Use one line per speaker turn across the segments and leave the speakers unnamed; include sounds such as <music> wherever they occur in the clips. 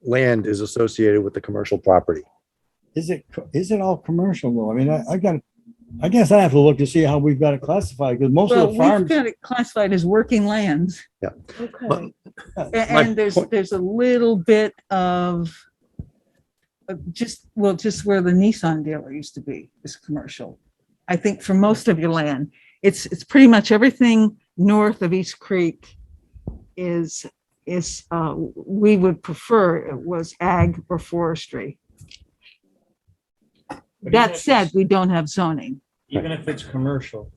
land is associated with the commercial property.
Is it, co- is it all commercial though? I mean, I, I got, I guess I have to look to see how we've got it classified because most
Well,
of the
we've
farms,
got it classified as working lands.
Yeah.
Okay. A-
my
And there's,
point-
there's a little bit of uh, just, well, just where the Nissan dealer used to be is commercial. I think for most of your land, it's, it's pretty much everything north of East Creek is, is, uh, we would prefer it was ag or forestry.
But even
That
if
said,
it's-
we don't have zoning.
Even if it's commercial,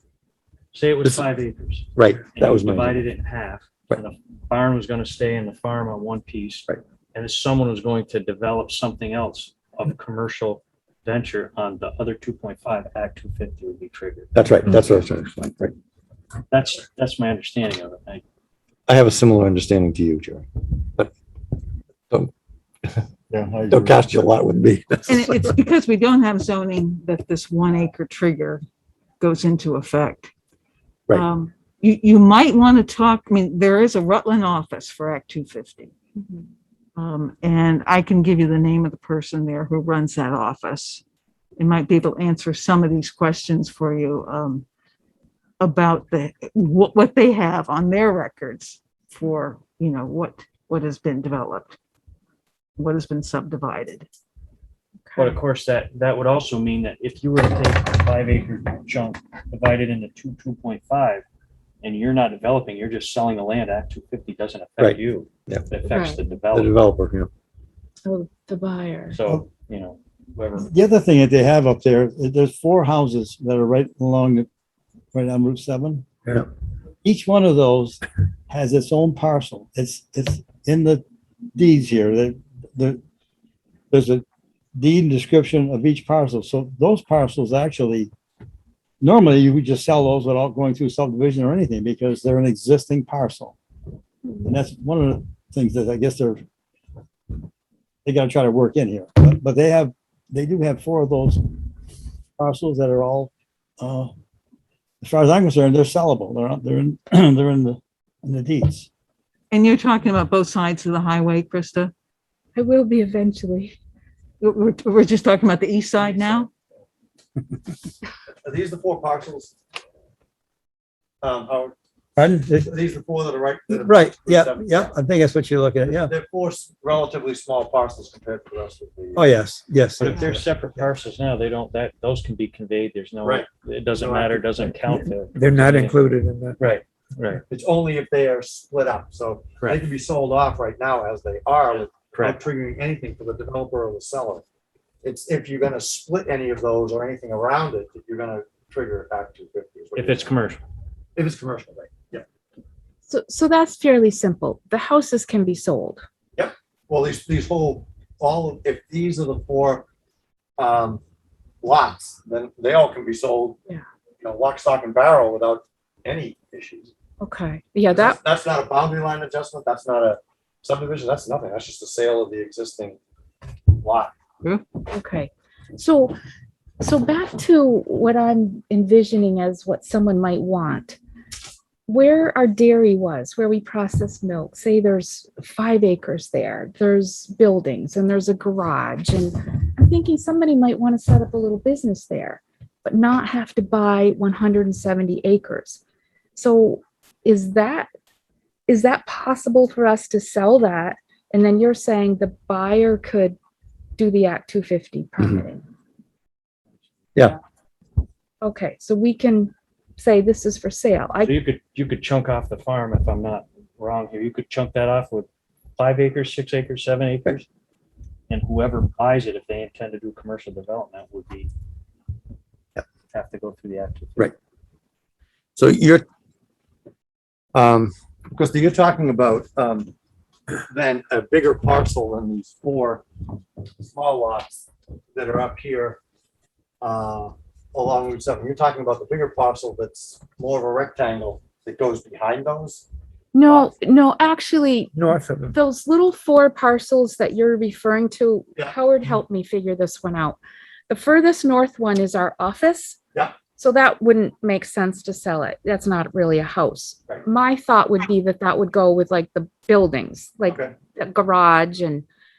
say it
This-
was five acres.
Right,
and
that
you
was my,
Divided it in half, and the barn was gonna stay in the farm on one piece.
Right.
And if someone was going to develop something else of commercial venture on the other two point five, Act two fifty would be triggered.
that's right, that's what I was trying to explain, right.
That's, that's my understanding of it. I-
I have a similar understanding to you, Jerry, but don't,
Yeah, I
don't cast your lot with <laughs> me.
And it- it's because we don't have zoning that this one acre trigger goes into effect.
Right.
Um, You, you might want to talk, I mean, there is a Rutland office for Act two fifty. Um, and I can give you the name of the person there who runs that office. It might be able to answer some of these questions for you, um, about the, what, what they have on their records for, you know, what, what has been developed, what has been subdivided.
But of course, that, that would also mean that if you were to take a five acre chunk, divide it into two, two point five, and you're not developing, you're just selling the land, Act two fifty doesn't
Right.
affect you.
Yeah.
It affects the
The
developer.
developer, you know.
So the buyer.
So, you know, whoever,
The other thing that they have up there, is there's four houses that are right along, the right on Route seven.
Yeah.
Each one of those has its own parcel. It's, it's in the deeds here, that, the, there's a deed and description of each parcel. So those parcels actually, normally you would just sell those without going through subdivision or anything because they're an existing parcel. And that's one of the things that I guess they're, they gotta try to work in here, but, but they have they do have four of those parcels that are all, uh, as far as I'm concerned, they're sellable. They're, not- they're in, <clears throat> they're in the, in the deeds.
And you're talking about both sides of the highway, Krista?
I will be eventually.
We're- We're, we're just talking about the east side now?
Are these the four parcels? Um, Howard,
Pardon?
are these the four that are right? that are-
Right, yeah, yeah, I think that's what you're looking at, yeah.
They're four s- relatively small parcels compared to the rest of the.
Oh, yes, yes.
but if they're separate parcels now, they don't, that, those can be conveyed, there's no,
Right.
it doesn't matter, doesn't count there.
They're not included in that.
Right, right,
It's only if they are split up, so they
correct,
can be sold off right now as they are, without
correct.
triggering anything for the developer or the seller. It's if you're gonna split any of those or anything around it, that you're gonna trigger Act two fifty.
If it's commercial,
If it's commercial, right, yeah.
So, so that's fairly simple. The houses can be sold.
Well, these, these whole, all, of if these are the four, um, lots, then they all can be sold.
Yeah.
You know, lock, stock and barrel without any issues.
Okay. Yeah, that,
That's that's not a boundary line adjustment, that's not a subdivision, that's nothing, that's just a sale of the existing lot.
okay. So, so back to what I'm envisioning as what someone might want. Where our dairy was, where we process milk, say there's five acres there, there's buildings and there's a garage. And I'm thinking somebody might want to set up a little business there, but not have to buy 170 acres. So is that, is that possible for us to sell that? And then you're saying the buyer could do the Act 250 permitting?
Yeah.
Okay, so we can say this is for sale.
so
I,
you could, you could chunk off the farm, if I'm not wrong here, you could chunk that off with five acres, six acres, seven acres. And whoever buys it, if they intend to do commercial development, would be have to go through the act.
Right. So you're, um,
Because you're talking about, um, then a bigger parcel than these four small lots that are up here, uh, along Route seven, you're talking about the bigger parcel that's more of a rectangle that goes behind those?
no, no, actually,
North of them.
those little four parcels that you're referring to,
Yeah. Mm-hmm.
Howard helped me figure this one out. The furthest north one is our office.
Yeah.
So that wouldn't make sense to sell it. That's not really a house.
Right.
My thought would be that that would go with like the buildings, like
Okay.
the garage and